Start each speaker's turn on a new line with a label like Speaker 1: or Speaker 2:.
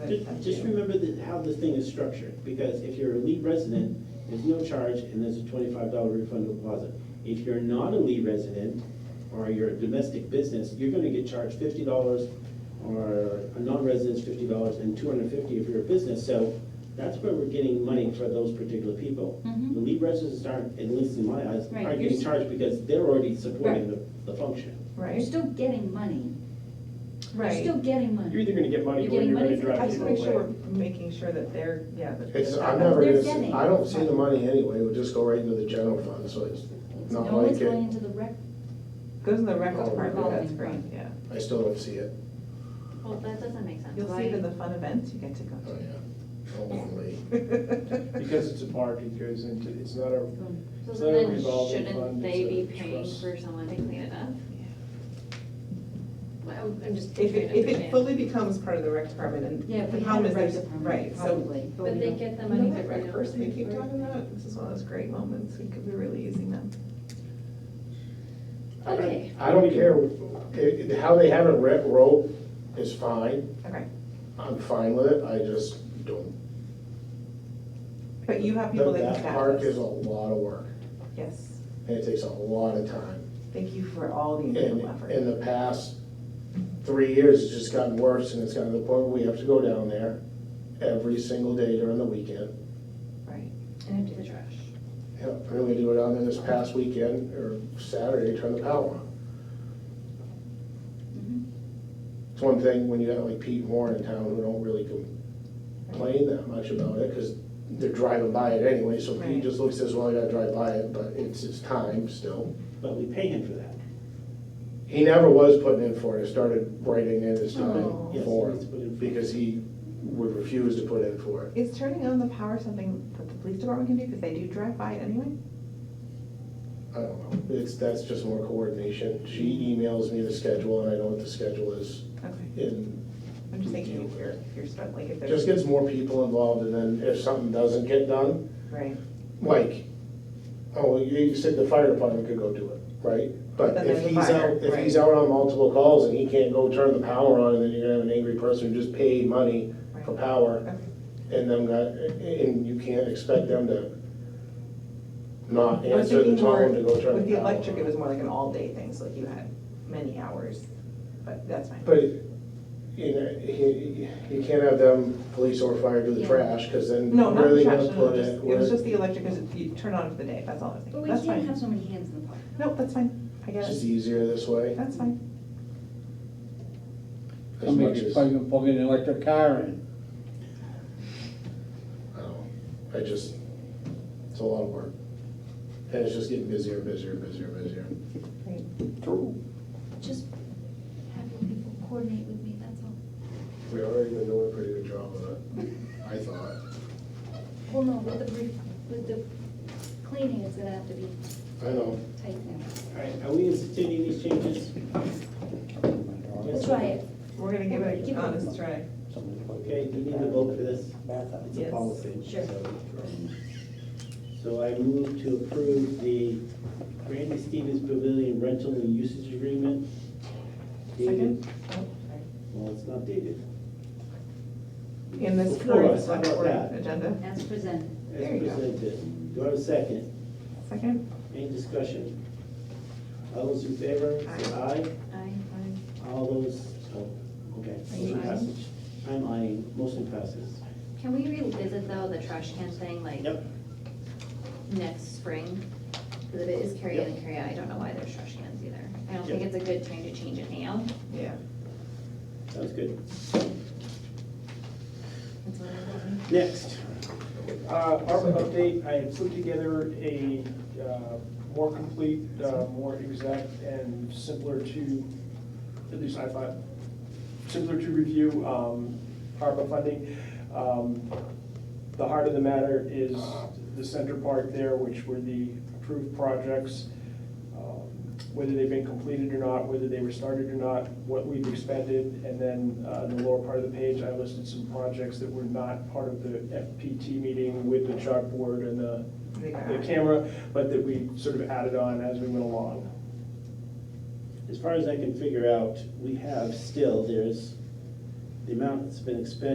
Speaker 1: Ju- Just remember that, how this thing is structured, because if you're a lead resident, there's no charge and there's a twenty-five dollar refundable deposit. If you're not a lead resident, or you're a domestic business, you're gonna get charged fifty dollars, or a non-resident's fifty dollars, and two hundred and fifty if you're a business, so that's where we're getting money for those particular people.
Speaker 2: Mhm.
Speaker 1: The lead residents aren't, at least in my eyes,
Speaker 2: Right,
Speaker 1: aren't
Speaker 2: you're
Speaker 1: getting
Speaker 2: s-
Speaker 1: charged because they're already supporting the, the function.
Speaker 2: You're
Speaker 3: Right,
Speaker 2: still getting money. You're
Speaker 3: right.
Speaker 2: still getting money.
Speaker 4: You're either gonna get money
Speaker 2: You're
Speaker 4: or
Speaker 2: getting
Speaker 4: you're gonna
Speaker 2: money for-
Speaker 3: I
Speaker 4: drive
Speaker 3: just
Speaker 4: people
Speaker 3: wanna make sure
Speaker 4: away.
Speaker 3: we're making sure that they're, yeah. that-
Speaker 5: It's, I've never,
Speaker 2: They're
Speaker 5: even
Speaker 2: getting-
Speaker 5: seen- I don't see the money anyway, it would just go right into the general fund, so it's
Speaker 2: It's-
Speaker 5: not
Speaker 2: No one's
Speaker 5: like
Speaker 2: going
Speaker 5: it,
Speaker 2: into the rec,
Speaker 3: Goes in the rec
Speaker 5: Oh,
Speaker 3: department, that's
Speaker 2: revolving
Speaker 3: great,
Speaker 2: fund.
Speaker 3: yeah.
Speaker 5: I still don't see it.
Speaker 6: Well, that doesn't make sense.
Speaker 3: You'll see
Speaker 6: Why-
Speaker 3: it in the fun events you get to go
Speaker 5: Oh, yeah, hopefully.
Speaker 3: to.
Speaker 4: Because it's a park, it goes into, it's not a,
Speaker 6: So
Speaker 4: it's not a
Speaker 6: then
Speaker 4: revolving
Speaker 6: shouldn't
Speaker 4: fund,
Speaker 6: they be
Speaker 4: it's a
Speaker 6: paying
Speaker 4: trust.
Speaker 6: for someone to clean it up? Well, I'm I'm just trying
Speaker 3: If
Speaker 6: to
Speaker 3: it, if it
Speaker 6: understand.
Speaker 3: fully becomes part of the rec department and.
Speaker 2: yeah, if
Speaker 3: the
Speaker 2: we had
Speaker 3: problem
Speaker 2: a
Speaker 3: is
Speaker 2: rec
Speaker 3: there's-
Speaker 2: department,
Speaker 3: Right, so.
Speaker 2: probably. but
Speaker 6: But
Speaker 2: we
Speaker 6: they
Speaker 2: don't.
Speaker 6: get the
Speaker 3: You
Speaker 6: money
Speaker 3: know
Speaker 6: that
Speaker 3: that
Speaker 6: we
Speaker 3: rec
Speaker 6: don't
Speaker 3: person we
Speaker 6: pay
Speaker 3: keep
Speaker 6: for?
Speaker 3: talking about? This is one of those great moments, we could be really using them.
Speaker 6: Okay,
Speaker 5: I don't care, it- it- how they have it rent rope is fine,
Speaker 3: Okay,
Speaker 5: I'm fine with it, I just don't.
Speaker 3: but you have people that
Speaker 5: That
Speaker 3: can
Speaker 5: park is
Speaker 3: balance.
Speaker 5: a lot of work,
Speaker 3: Yes,
Speaker 5: and it takes a lot of time.
Speaker 3: thank you for all the
Speaker 5: And
Speaker 3: incredible
Speaker 5: in
Speaker 3: effort.
Speaker 5: the past three years, it's just gotten worse, and it's gotten to the point where we have to go down there every single day during the weekend.
Speaker 3: Right,
Speaker 6: and empty the trash.
Speaker 5: Yep, we're gonna do it down there this past weekend, or Saturday, turn the power on.
Speaker 2: Mhm.
Speaker 5: It's one thing when you got like Pete and Warren in town who don't really complain that much about it, because they're driving by it anyway, so
Speaker 3: Right.
Speaker 5: Pete just looks as well, I gotta drive by it, but it's his time still.
Speaker 1: But we pay him for that.
Speaker 5: He never was putting in for it, He started writing in his
Speaker 3: Oh.
Speaker 5: time
Speaker 1: Yes,
Speaker 5: for
Speaker 1: he needs to
Speaker 5: it,
Speaker 1: put in for it.
Speaker 5: because he would refuse to put in for it.
Speaker 3: is turning on the power something that the police department can do, because they do drive by it anyway?
Speaker 5: I don't know, it's, that's just more coordination. She
Speaker 3: Mm-hmm.
Speaker 5: emails me the schedule, and I know what the schedule is,
Speaker 3: Okay,
Speaker 5: and
Speaker 3: I'm just thinking if you're, if you're stuck, like if
Speaker 5: It
Speaker 3: there's.
Speaker 5: Just gets more people involved, and then if something doesn't get done,
Speaker 3: Right,
Speaker 5: like, oh, you- you said the fire department could go do it, right?
Speaker 3: But
Speaker 5: But
Speaker 3: then
Speaker 5: if
Speaker 3: the
Speaker 5: he's
Speaker 3: fire,
Speaker 5: out, if he's
Speaker 3: right.
Speaker 5: out on multiple calls and he can't go turn the power on, and then you're gonna have an angry person who just paid money for
Speaker 3: right.
Speaker 5: power,
Speaker 3: Okay.
Speaker 5: and them got, and you can't expect them to not
Speaker 3: I was
Speaker 5: answer the
Speaker 3: thinking more,
Speaker 5: tone to go turn the power on.
Speaker 3: with the electric, it was more like an all-day thing, so like you had many hours, but that's fine.
Speaker 5: But, you know, you, you can't have them, police or fire, do the
Speaker 2: Yeah.
Speaker 5: trash, cause then
Speaker 3: No,
Speaker 5: where
Speaker 3: not
Speaker 5: are
Speaker 3: the
Speaker 5: they
Speaker 3: trash,
Speaker 5: gonna
Speaker 3: no, no,
Speaker 5: put
Speaker 3: just,
Speaker 5: it?
Speaker 3: it
Speaker 5: Where-
Speaker 3: was just the electric, because you turn on for the day, that's all I was
Speaker 2: But
Speaker 3: thinking,
Speaker 2: we
Speaker 3: that's
Speaker 2: can't have
Speaker 3: fine.
Speaker 2: so many hands in the pot.
Speaker 3: Nope, that's fine, I
Speaker 5: It's
Speaker 3: get
Speaker 5: just
Speaker 3: it,
Speaker 5: easier this way.
Speaker 3: that's fine.
Speaker 5: As much
Speaker 7: Somebody's
Speaker 5: as-
Speaker 7: probably gonna plug an electric car in.
Speaker 5: I don't know. I just, it's a lot of work. And it's just getting busier, and busier, and busier, and busier.
Speaker 3: Great.
Speaker 7: True.
Speaker 2: Just having people coordinate with me, that's all.
Speaker 5: We already been doing a pretty good job of it, I thought.
Speaker 2: Well, no, with the, re- with the cleaning, it's gonna have to be
Speaker 5: I know.
Speaker 2: tight now.
Speaker 1: All right, are we instituting these changes?
Speaker 2: We'll try it.
Speaker 3: We're gonna give it an honest try.
Speaker 1: Okay, do you need to vote for this? It's a
Speaker 3: Yes.
Speaker 1: policy.
Speaker 2: Sure.
Speaker 1: so- So I move to approve the Randy Stevens Pavilion rental and usage agreement. dated-
Speaker 3: Second? Oh, sorry.
Speaker 1: Well, it's not dated.
Speaker 3: In this
Speaker 1: Before
Speaker 3: current
Speaker 1: us, how
Speaker 3: select
Speaker 1: about
Speaker 3: board
Speaker 1: that?
Speaker 3: agenda,
Speaker 2: As presented.
Speaker 1: As
Speaker 3: There you go.
Speaker 1: presented. Do I have a second?
Speaker 3: second?
Speaker 1: Any discussion? All those in favor, say aye.
Speaker 6: I,
Speaker 1: All those, oh, okay.
Speaker 3: Are you
Speaker 1: Motion
Speaker 3: aye?
Speaker 1: passage. I'm aye, motion passes.
Speaker 6: can we revisit though the trash can thing like
Speaker 1: Yep,
Speaker 6: next spring? Because if it is carry in and carry out, I don't know why there's trash cans either. I don't think
Speaker 1: Yep.
Speaker 6: it's a good time to change it now.
Speaker 3: Yeah.
Speaker 1: sounds good.
Speaker 6: That's what I'm thinking.
Speaker 1: Next,
Speaker 4: Uh, ARPA update, I have put together a uh, more complete, uh, more exact, and simpler to, at least I thought, simpler to review um, ARPA funding. Um, The heart of the matter is the center part there, which were the approved projects, um, whether they've been completed or not, whether they were started or not, what we've expended, and then uh, in the lower part of the page, I listed some projects that were not part of the FPT meeting with the chalkboard and the
Speaker 3: They got
Speaker 4: the
Speaker 3: it.
Speaker 4: camera, but that we sort of added on as we went along.
Speaker 1: as far as I can figure out, we have still, there's the amount that's been expended